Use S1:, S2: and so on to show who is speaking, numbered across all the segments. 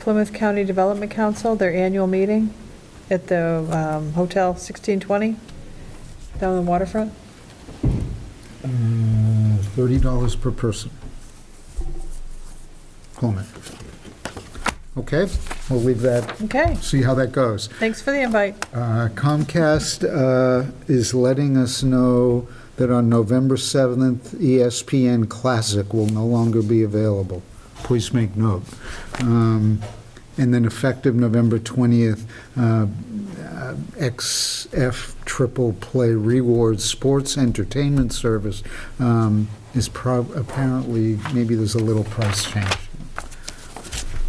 S1: Plymouth County Development Council, their annual meeting at the um, Hotel 1620 down on the waterfront.
S2: Uh, $30 per person. Comment. Okay, we'll leave that,
S1: Okay,
S2: see how that goes.
S1: thanks for the invite.
S2: Uh, Comcast uh, is letting us know that on November E 7th, ESPN Classic will no longer be available. Please make note. Um, And then effective November 20th, uh, uh, XF Triple Play Rewards Sports Entertainment Service um, is prob- apparently, maybe there's a little price change.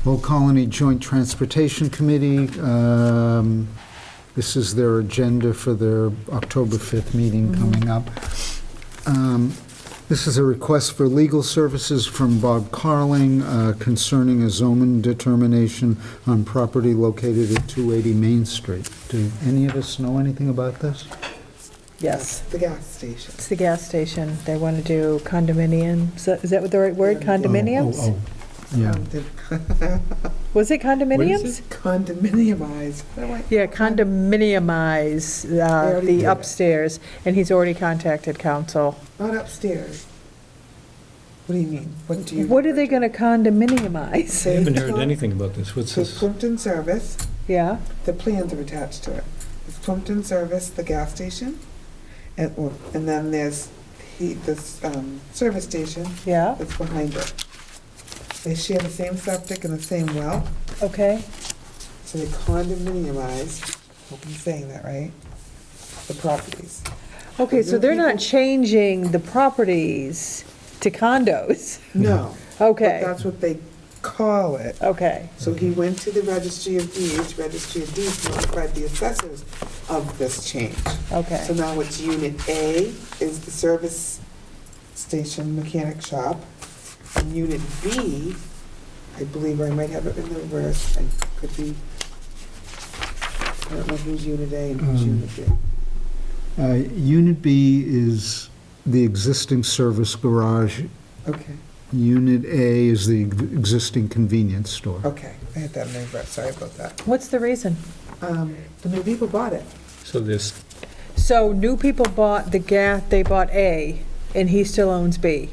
S2: Old Colony Joint Transportation Committee, um, this is their agenda for their October 5th meeting coming up. Um, This is a request for legal services from Bob Carling uh, concerning a zoning determination on property located at 280 Main Street. Do any of us know anything about this?
S1: Yes.
S3: The gas station.
S1: It's the gas station. They want to do condominium, is that- is that the right word, condominiums?
S2: Oh, oh, Yeah.
S3: Um.
S1: Was it condominiums?
S2: is
S3: Condominiumized. I'm like,
S1: Yeah, condominiumize uh,
S3: already did
S1: the
S3: that.
S1: upstairs, and he's already contacted council.
S3: Not upstairs. What do you mean? What do you?
S1: What are they going to
S3: They
S1: condominiumize?
S4: I haven't heard
S3: took-
S4: anything about this. What's
S3: So
S4: this?
S3: Plimpton Service,
S1: Yeah,
S3: the plans are attached to it. It's Plimpton Service, the gas station, and, or- and then there's he, this, um, service station
S1: yeah,
S3: that's behind it. They share the same septic and the same well,
S1: okay.
S3: so they condominiumized, hope I'm saying that right, the properties.
S1: Okay, so they're not changing the properties to condos.
S3: No. But
S1: Okay,
S3: that's what they call it.
S1: okay,
S3: So he went to the Registry of Deeds, Registry of Deeds notified the assessors of this change. So
S1: okay.
S3: now it's Unit A is the service station mechanic shop. And Unit B, I believe I might have it in the reverse, I could be, I don't know who's Unit A and who's
S2: Um,
S3: Unit B.
S2: Uh, Unit B is the existing service garage.
S3: Okay,
S2: Unit A is the existing convenience store.
S3: okay, I had that in the reverse, sorry about that.
S1: What's the reason?
S3: Um, The new people bought it.
S4: So this,
S1: So new people bought the gas, they bought A, and he still owns B.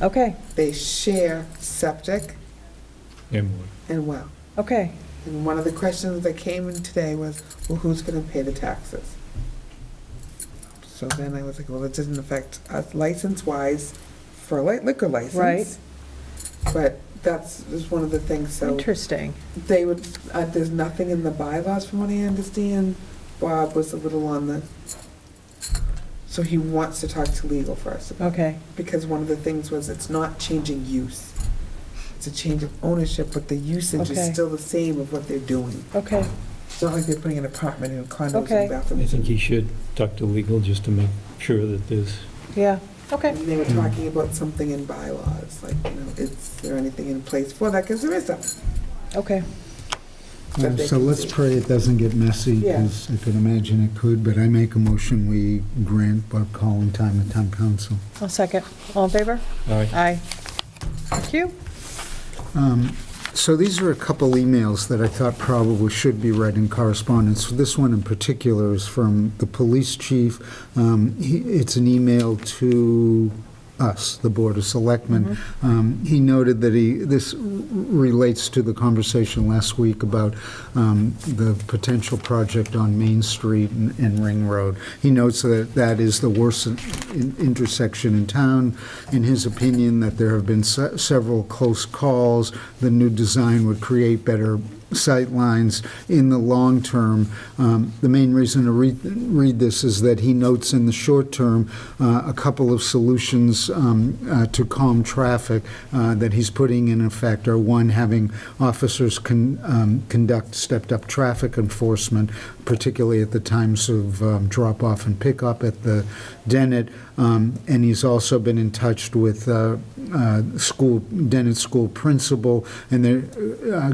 S1: Okay,
S3: They share septic
S4: and what?
S3: and well.
S1: okay.
S3: And one of the questions that came in today was, well, who's gonna pay the taxes? So then I was like, well, it doesn't affect us license-wise for a light liquor license.
S1: Right.
S3: But that's, is one of the things, so
S1: Interesting.
S3: they would, uh, there's nothing in the bylaws from what I understand. Bob was a little on the, so he wants to talk to legal first about
S1: Okay,
S3: because one of the things was it's not changing use. It's a change of ownership, but the usage is
S1: Okay.
S3: still the same of what they're doing.
S1: okay,
S3: It's not like they're putting an apartment and condos
S1: Okay.
S3: and
S4: I
S3: bathrooms.
S4: think he should talk to legal just to make sure that there's,
S1: yeah, okay.
S3: And they were
S4: Hmm.
S3: talking about something in bylaws, like, you know, is there anything in place for that? Because there is something.
S1: Okay,
S3: that they
S2: So
S3: can
S2: let's
S3: see.
S2: pray it doesn't get messy,
S3: Yeah.
S2: because I could imagine it could, but I make a motion, we grant Bob Collin time at town council.
S1: I'll second. All in favor?
S4: all right.
S1: Aye. Thank you.
S2: Um, So these are a couple emails that I thought probably should be read in correspondence. This one in particular is from the police chief. Um, he- It's an email to us, the Board of Selectmen. Um, He noted that he, this r- relates to the conversation last week about um, the potential project on Main Street and and Ring Road. He notes that that is the worst in- in- intersection in town. In his opinion, that there have been se- several close calls. The new design would create better sight lines in the long term. Um, The main reason to read, read this is that he notes in the short term, uh, a couple of solutions um, uh, to calm traffic uh, that he's putting in effect are, one, having officers con- um, conduct stepped-up traffic enforcement, particularly at the times of um, drop-off and pickup at the Dennett. Um, And he's also been in touch with uh, uh, school, Dennett school principal, and they're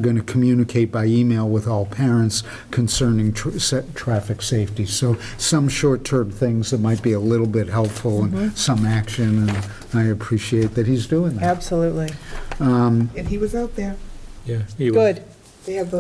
S2: going to communicate by email with all parents concerning tr- set traffic safety. So some short-term things that might be a little bit helpful and some action, and I appreciate that he's doing that.
S1: Absolutely.
S3: And he was out there.
S4: Yeah. he was-
S1: Good.
S3: They have the